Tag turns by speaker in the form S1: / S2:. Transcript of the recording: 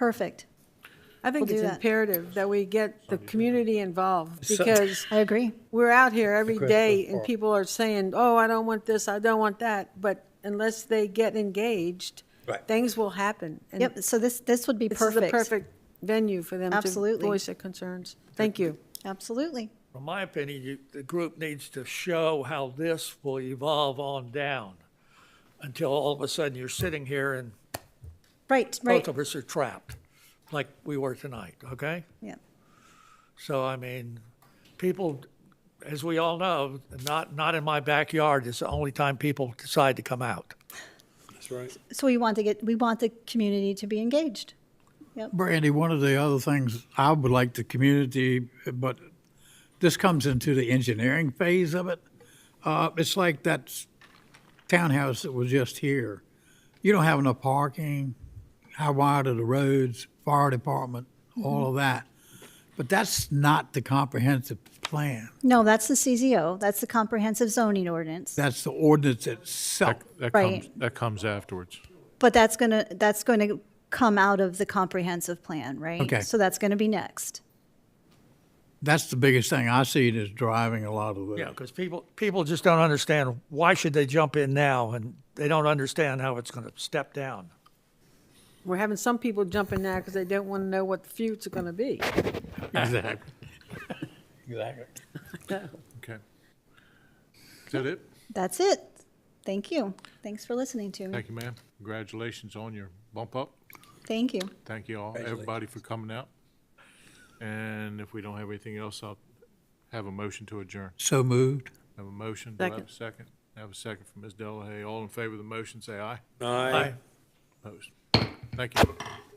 S1: Perfect.
S2: I think
S1: We'll
S2: it's
S1: do that.
S2: imperative that we get the community involved
S3: So-
S2: because
S1: I agree.
S2: we're out here every
S3: Good
S2: day
S3: for-
S2: and people are saying, oh, I don't want this, I don't want that. But unless they get engaged,
S3: Right.
S2: things will happen. And
S1: Yep, so this, this would be
S2: This is
S1: perfect.
S2: the perfect venue for them to
S1: Absolutely.
S2: voice their concerns. Thank you.
S1: Absolutely.
S4: From my opinion, you, the group needs to show how this will evolve on down until all of a sudden you're sitting here and
S1: Right, right.
S4: both of us are trapped, like we were tonight, okay?
S1: Yeah.
S4: So, I mean, people, as we all know, not, not in my backyard is the only time people decide to come out.
S3: That's right.
S1: So we want to get, we want the community to be engaged.
S5: Brandy, one of the other things I would like the community, but this comes into the engineering phase of it. Uh, it's like that s- townhouse that was just here. You don't have enough parking. How wide are the roads? Fire department, all of that. But that's not the comprehensive plan.
S1: No, that's the CZO, that's the comprehensive zoning ordinance.
S5: That's the ordinance itself.
S6: That
S1: Right.
S6: comes, that comes afterwards.
S1: But that's gonna, that's going to come out of the comprehensive plan, right?
S5: Okay.
S1: So that's going to be next.
S5: That's the biggest thing I see is driving a lot of
S4: Yeah,
S5: the,
S4: because people, people just don't understand, why should they jump in now? And they don't understand how it's going to step down.
S2: We're having some people jumping now because they don't want to know what the future's going to be.
S5: exactly. Exactly.
S6: Okay. Is that it?
S1: That's it. Thank you. Thanks for listening to me.
S6: Thank you, ma'am. Congratulations on your bump up.
S1: Thank you.
S6: Thank you all, everybody for coming out. And if we don't have anything else, I'll have a motion to adjourn.
S5: So moved.
S6: Have a motion, do I have
S2: Second.
S6: a second? I Have a second from Ms. Delahay. All in favor of the motion, say aye.
S3: Aye.
S6: Opposed? Thank you.